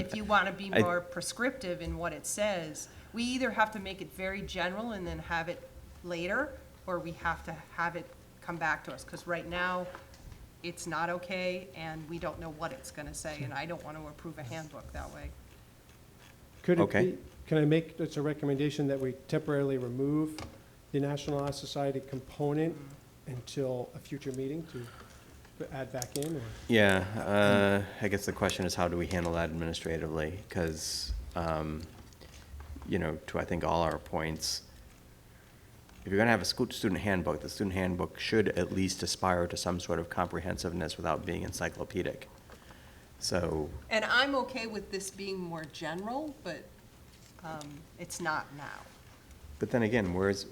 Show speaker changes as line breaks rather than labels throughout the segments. If you want to be
I-
more prescriptive in what it says, we either have to make it very general and then have it later, or we have to have it come back to us, because right now, it's not okay, and we don't know what it's going to say, and I don't want to approve a handbook that way.
Could it
Okay.
be, can I make, it's a recommendation that we temporarily remove the National Honor Society component
Mm-hmm.
until a future meeting to add back in? or-
Yeah, uh, I guess the question is how do we handle that administratively? Because, you know, to I think all our points, if you're going to have a school, student handbook, the student handbook should at least aspire to some sort of comprehensiveness without being encyclopedic. So,
And I'm okay with this being more general, but um, it's not now.
but then again, where's,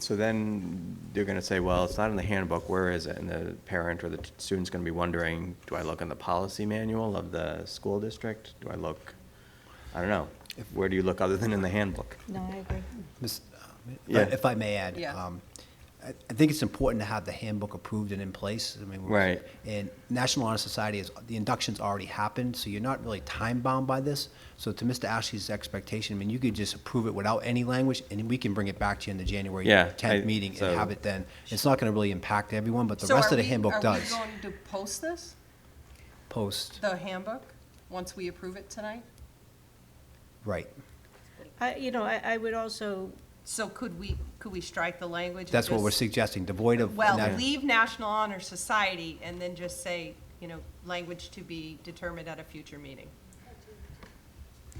so then they're going to say, well, it's not in the handbook, where is it? And the parent or the t- student's going to be wondering, do I look in the policy manual of the school district? Do I look, I don't know. Where do you look other than in the handbook?
No, I agree.
Miss- uh,
Yeah.
If I may add.
Yeah.
um, I I think it's important to have the handbook approved and in place. I mean, we're-
Right.
And National Honor Society is, the induction's already happened, so you're not really time-bound by this. So to Mr. Ashley's expectation, I mean, you could just approve it without any language, and we can bring it back to you in the January
Yeah, I-
10th meeting
so-
and have it then. It's not going to really impact everyone, but the
So
rest
are
of the
we-
handbook does.
Are we going to post this,
Post,
the handbook, once we approve it tonight?
right.
I, you know, I, I would also,
So could we, could we strike the language? and
That's what we're
just-
suggesting, devoid of.
Well,
nat-
leave National Honor Society and then just say, you know, language to be determined at a future meeting.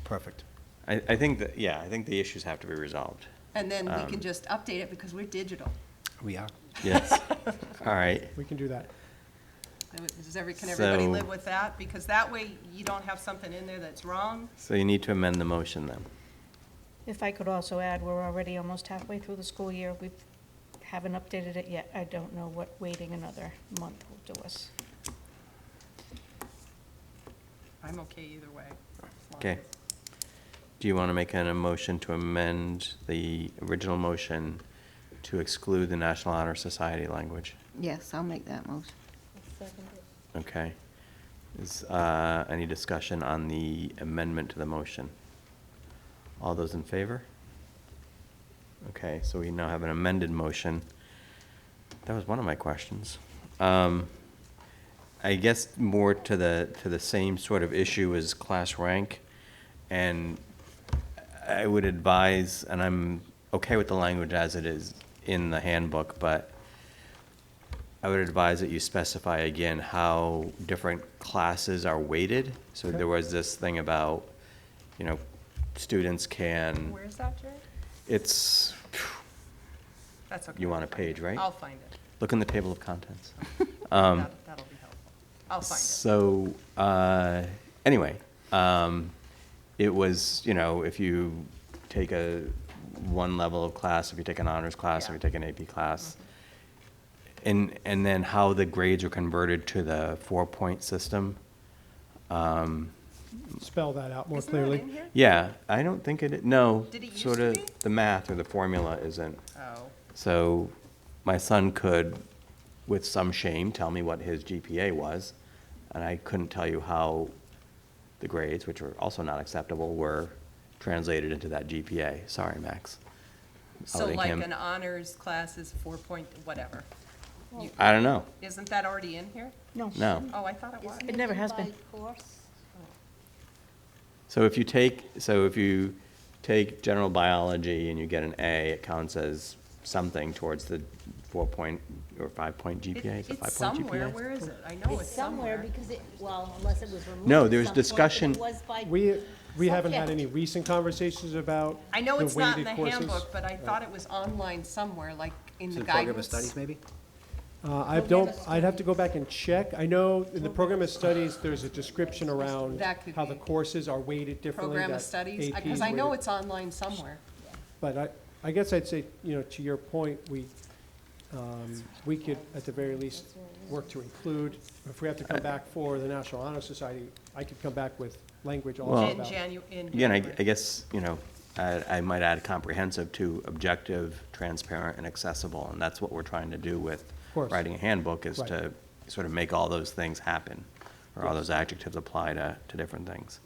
Perfect.
I, I think that, yeah, I think the issues have to be resolved.
And then we
Um,
can just update it because we're digital.
We are.
Yes. All right.
We can do that.
Does every, can everybody
So-
live with that? Because that way you don't have something in there that's wrong.
So you need to amend the motion then.
if I could also add, we're already almost halfway through the school year. We haven't updated it yet. I don't know what waiting another month will do us.
I'm okay either way. as long
Okay.
as-
Do you want to make an a motion to amend the original motion to exclude the National Honor Society language?
Yes, I'll make that motion.
Okay. Is, uh, any discussion on the amendment to the motion? All those in favor? Okay, so we now have an amended motion. That was one of my questions. Um, I guess more to the, to the same sort of issue as class rank. And I would advise, and I'm okay with the language as it is in the handbook, but I would advise that you specify again how different classes are weighted. So there was this thing about, you know, students can,
Where's Mm. that, Jerry?
it's,
That's okay.
you want a page, right? Um,
I'll find it.
Look in the table of contents.
That- That'll be helpful. I'll find it.
So, uh, anyway, um, it was, you know, if you take a, one level of class, if you take an honors class, if
Yeah.
you take an AP class, and, and then how the grades are converted to the four-point system.
Spell that out more
Isn't that
clearly.
in here?
Yeah, I don't think it, no.
Did it used
sort
to
of
be?
The math or the formula isn't.
Oh,
So my son could, with some shame, tell me what his GPA was, and I couldn't tell you how the grades, which were also not acceptable, were translated into that GPA. Sorry, Max.
so
Outing
like
him.
an honors class is four point, whatever. You-
I don't know.
Isn't that already in here?
No.
No.
Oh, I thought it was.
It never has been.
So if you take, so if you take general biology and you get an A, it counts as something towards the four-point or five-point
It-
GPA? Is it
It's
five-point
somewhere,
GPA?
where is it? I know
Oh, It's somewhere because it, well, unless it was removed.
No,
at
there was
some point, but
discussion-
It was by.
We, we haven't had
subject.
any recent conversations about
I know
the
it's not in the
weighted courses.
handbook, but I thought it was online somewhere, like in
Is
the
it program of
guidance.
studies, maybe?
Uh, I don't, I'd have to go back and check. I know in the program of studies, there's a description around
Mm. That could
how the
be.
courses are weighted differently.
Program of
that
studies,
AP
because
is
I know
weighted-
it's online somewhere.
But I, I guess I'd say, you know, to your point, we, um, we could, at the very least, work to include, if we have to come back for the National Honor Society, I could come back with language also
In
about.
Janu, in.
Again, I,
January.
I guess, you know, I, I might add comprehensive to objective, transparent, and accessible, and that's what we're trying to do with
course.
writing a handbook, is
Right.
to sort of make all those things happen, or all those adjectives apply to, to different things.